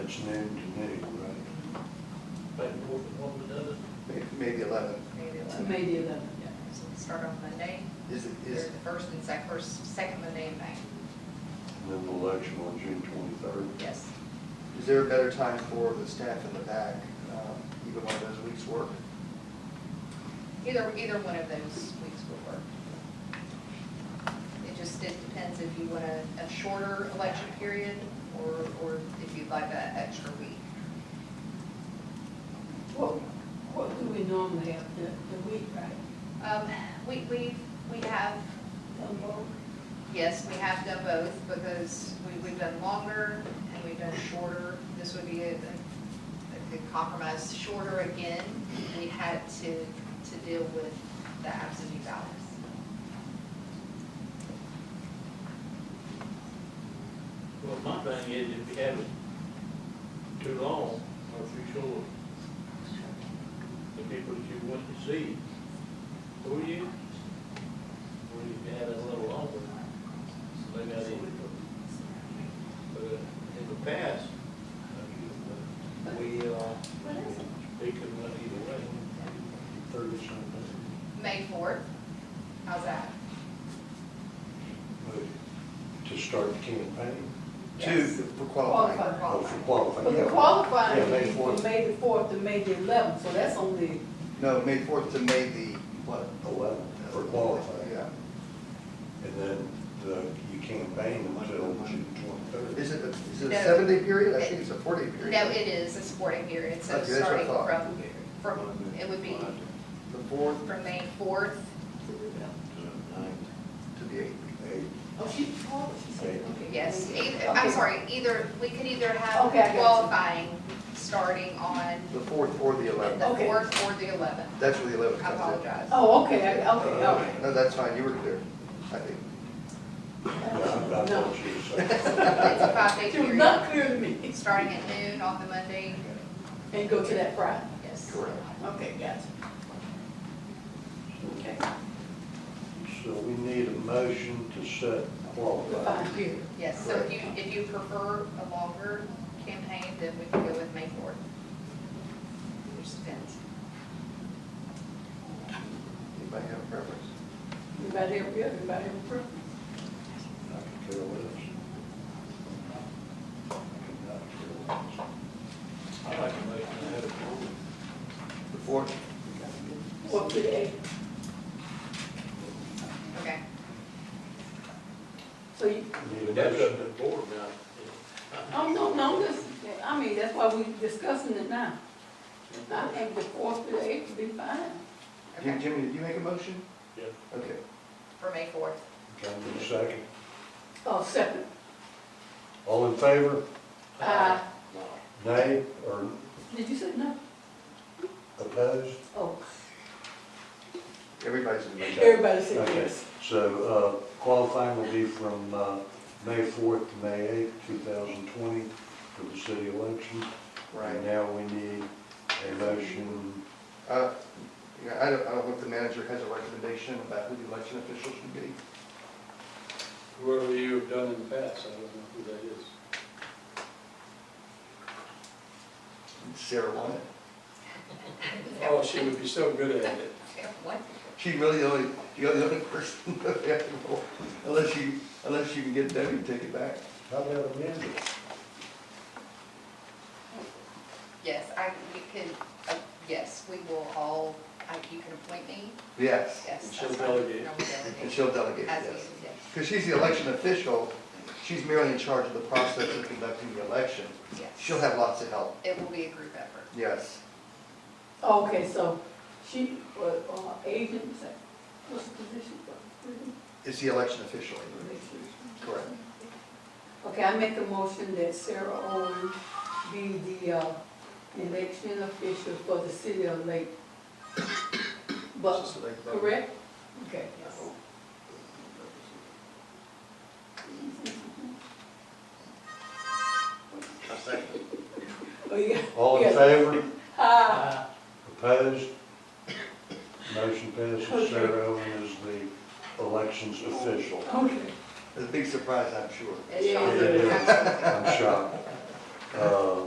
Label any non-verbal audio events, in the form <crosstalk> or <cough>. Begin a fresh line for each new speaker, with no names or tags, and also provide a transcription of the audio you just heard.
it's noon to noon, right?
But what, what we do,
May- Maybe eleven.
Maybe
to
eleven.
May the eleventh.
Yeah, so we start on Monday,
Is it,
there's
is,
the first and sec, first, second Monday in May,
And Then the election on June twenty-third.
yes.
is there a better time for the staff in the back, um, either one of those weeks work?
Either, either one of those weeks would work. It just, it depends if you want a, a shorter election period or, or if you'd like an extra week.
What, what do we normally have, the, the week, right?
Um, we, we, we have,
Of all?
yes, we have done both because we, we've done longer and we've done shorter. This would be a, a good compromise, shorter again, we had to, to deal with the absentee ballots.
well, my thing is if you have it too long or too short, the people that you want to see, who you, or you can have it a little longer, so they got it. But uh, in the past, uh, we, uh, they could run either way. Thursday,
May fourth, how's that?
To start the campaign,
Two
Yes.
for qualifying.
Qualifying.
or for
For the
qualifying. Yeah,
qualifying,
May
meeting,
fourth.
from May the fourth to May the eleventh, so that's only,
No, May fourth to May the, what?
Eleven, for qualifying.
Yeah.
And then the, you campaign until June twenty-third.
Is it, a- is it
No.
a seven-day period? I think it's a four-day period.
No, it is a sporting period, so
Okay, that's what I
starting
thought.
from, from, it would be
The fourth
from May fourth.
to the eighth.
oh, she, oh, she said, okay.
Yes, either, I'm sorry, either, we could either have
Okay, I got you.
qualifying starting on
The fourth or the eleventh.
the
Okay.
fourth or the eleventh.
That's where the
I
eleventh comes in.
apologize.
Oh, okay, I- okay, all right.
No, that's fine, you were clear, I think.
That's
No.
what you said.
It's a five-day
It was
period,
not clear to me,
starting at noon on the Monday,
and go to that Friday.
yes.
Correct.
Okay, gotcha. Okay,
So we need a motion to set qualifying.
fine, here.
Yes, so if you, if you prefer a longer campaign, then we can go with May fourth. Understand.
Anybody have a preference?
Everybody have, yeah, everybody have a preference?
I could care less. I could not care less.
I like to make that have it.
The fourth?
What for the eight?
Okay,
So you,
Need a
That's up
motion?
to the board now.
oh, no, no, this, I mean, that's why we discussing it now. I think the fourth to the eighth would be fine.
Jim-
okay,
Jimmy, did you make a motion?
Yeah.
Okay.
for May fourth.
Can I get a second?
Oh, second.
All in favor?
Uh,
Nay or
did you say no?
opposed?
Oh,
Everybody's in the motion.
everybody said
Okay.
yes.
So uh, qualifying will be from uh, May 4th to May 8th, 2020 for the city election. And
Right.
now we need a motion.
Uh, yeah, I don't, I don't know if the manager has a recommendation about who the election officials should be.
Whoever you have done in the past, I don't know who that is.
Sarah won it.
Oh, she would be so good at it.
What?
She really the only, you're the only person, <laughs> unless you, unless you can get Debbie to take it back.
How about amended?
Yes, I, we can, uh, yes, we will all, I- you can appoint me,
Yes,
yes.
And she'll
that's fine.
delegate.
I will delegate.
and she'll delegate,
As needed,
yes.
yes,
Because she's the election official, she's merely in charge of the process of conducting the election.
yes.
She'll have lots of help,
It will be a group effort.
yes.
Okay, so she, was uh, agent, is that- what's the position? for?
It's the election official, correct?
Okay, I make a motion that Sarah Owen be the uh, election official for the city of Lake. But,
Just like that.
correct? Okay. Oh, yeah. <laughs>
All in
Yes.
favor?
Ah,
Uh,
Opposed? Motion passes. Sarah Owen is the elections official.
okay.
It's a big surprise, I'm sure.
It's
Yeah.
Sean.
It is. I'm shocked. Uh,